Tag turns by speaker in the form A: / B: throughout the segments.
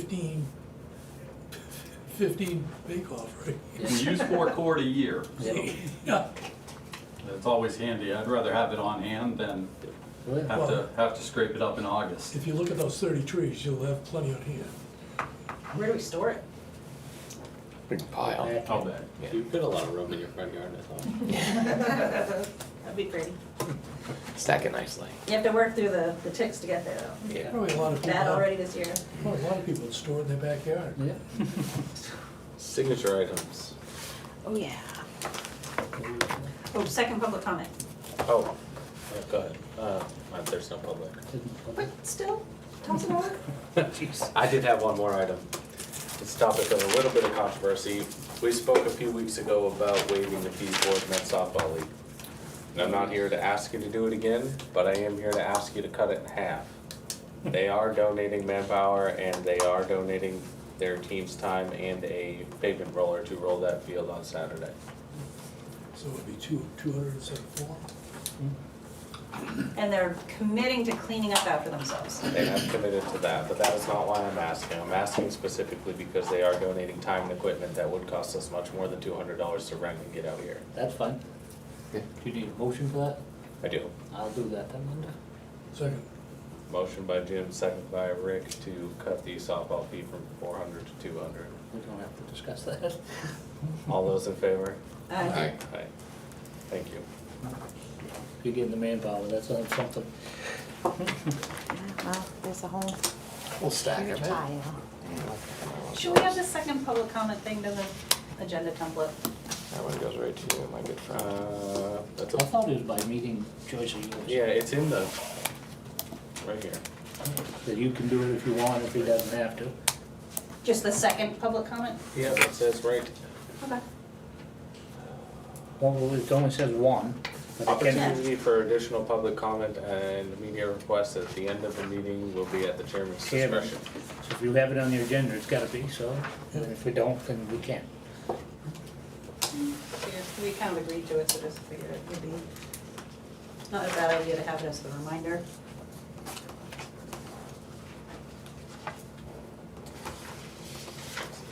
A: fifteen, fifteen bake-off, right?
B: We use four cord a year.
C: Yeah.
A: Yeah,
B: It's always handy. I'd rather have it on hand than
C: Oh, yeah.
B: have to, have to scrape it up in August.
A: if you look at those thirty trees, you'll have plenty on here.
D: Where do we store it?
E: Big pile.
C: Back.
B: I'll bet.
E: Yeah.
C: You've got a lot of room in your front yard, I thought.
D: That'd be pretty.
E: Stack it nicely.
D: You have to work through the, the ticks to get there though.
E: Yeah.
A: Probably a lot of people,
D: That already
A: have-
D: this year.
A: well, a lot of people store it in their backyard.
C: Yeah. Signature items.
D: Oh, yeah. Oh, second public comment.
C: Oh, oh, go ahead. Uh, uh, there's no public.
D: But still, toss it over.
C: I did have one more item. It's a topic of a little bit of controversy. We spoke a few weeks ago about waiving the fee for the Met softball league. And I'm not here to ask you to do it again, but I am here to ask you to cut it in half. They are donating manpower and they are donating their team's time and a pavement roller to roll that field on Saturday.
A: So it'd be two, two hundred and seventy-four.
D: And they're committing to cleaning up after themselves.
C: They have committed to that, but that is not why I'm asking. I'm asking specifically because they are donating time and equipment that would cost us much more than two hundred dollars to rent and get out here.
F: That's fine.
E: Yeah.
F: Do you need a motion for that?
C: I do.
F: I'll do that then, Linda.
A: Second,
C: Motion by Jim, second by Rick to cut the softball fee from four hundred to two hundred.
F: We don't have to discuss that.
C: All those in favor?
D: Uh,
E: Aye.
C: Aye. Thank you.
F: You're getting the manpower, that's on something.
G: Well, there's a whole
E: We'll stack
G: huge
E: it.
G: pile.
D: Should we have the second public comment thing to the agenda template?
E: That one goes right to you, my good friend.
C: Uh, that's
F: I
C: a,
F: thought it was by meeting choice of yours.
C: yeah, it's in the, right here.
F: That you can do it if you want, if he doesn't have to.
D: Just the second public comment?
C: Yeah, that says right.
D: Okay.
F: Well, it only says one, but it can,
C: Opportunity for additional public comment and media requests at the end of the meeting will be at the chairman's
F: Chairman.
C: discretion.
F: so if you have it on your agenda, it's gotta be, so, and if we don't, then we can't.
D: Yeah, We kind of agreed to it, so just figured it would be not a bad idea to have it as a reminder.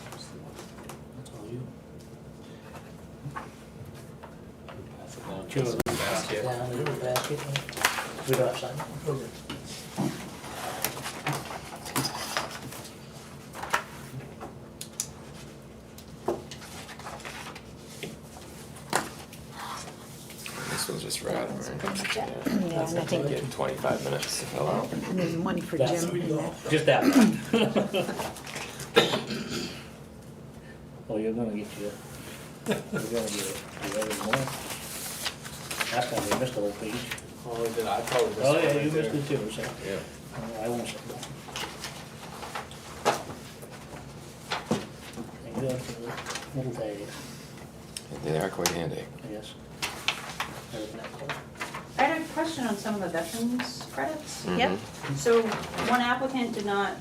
F: That's all you.
C: Pass it down.
F: Sure.
C: Basket.
F: Down in the basket. We don't sign.
A: okay.
E: This one's just right over.
G: Yeah,
E: Yeah,
G: and I think
E: Get twenty-five minutes to fill out.
G: there's money for
F: That's-
G: Jim. in that.
F: Just that one. Oh, you're gonna get your, you're gonna get your other one. That's gonna be missed a whole page.
C: Oh, did I probably missed
F: Oh,
C: one
F: yeah,
C: right
F: you missed
C: there.
F: it too, so
C: Yeah.
F: uh, I won't say that. Thank God for the little days,
E: They are quite handy.
F: I guess. Better than that close.
D: I had a question on some of the veterans credits.
E: Mm-hmm.
G: Yep,
D: So one applicant did not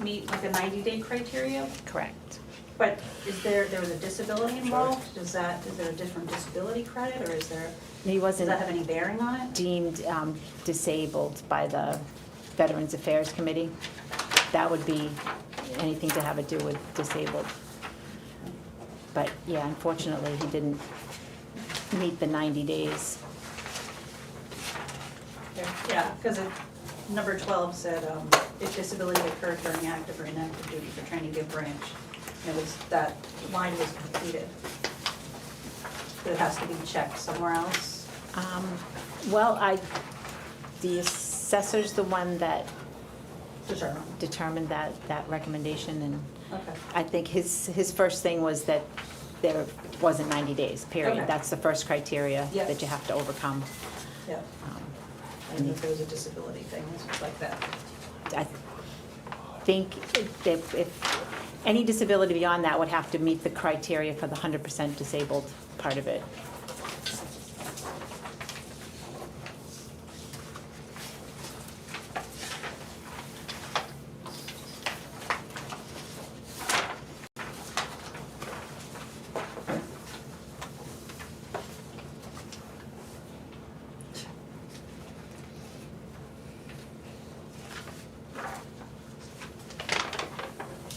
D: meet like a ninety-day criteria,
G: correct.
D: but is there, there was a disability involved? Is that, is there a different disability credit or is there,
G: He
D: does
G: wasn't
D: that have any bearing on it?
G: deemed um, disabled by the Veterans Affairs Committee. That would be anything to have to do with disabled. But yeah, unfortunately, he didn't meet the 90 days.
D: Yeah, because number twelve said, um, if disability occurred during active or inactive duty for training give branch. And it was, that line was completed. But it has to be checked somewhere else.
G: Um, Well, I, the assessor's the one that
D: Determine.
G: determined that, that recommendation and
D: Okay.
G: I think his, his first thing was that there wasn't 90 days,
D: Okay.
G: period. That's the first criteria
D: Yeah.
G: that you have to overcome.
D: Yeah,
G: Um,
D: I think there was a disability thing, it's like that.
G: I think that if, any disability beyond that would have to meet the criteria for the 100% disabled part of it.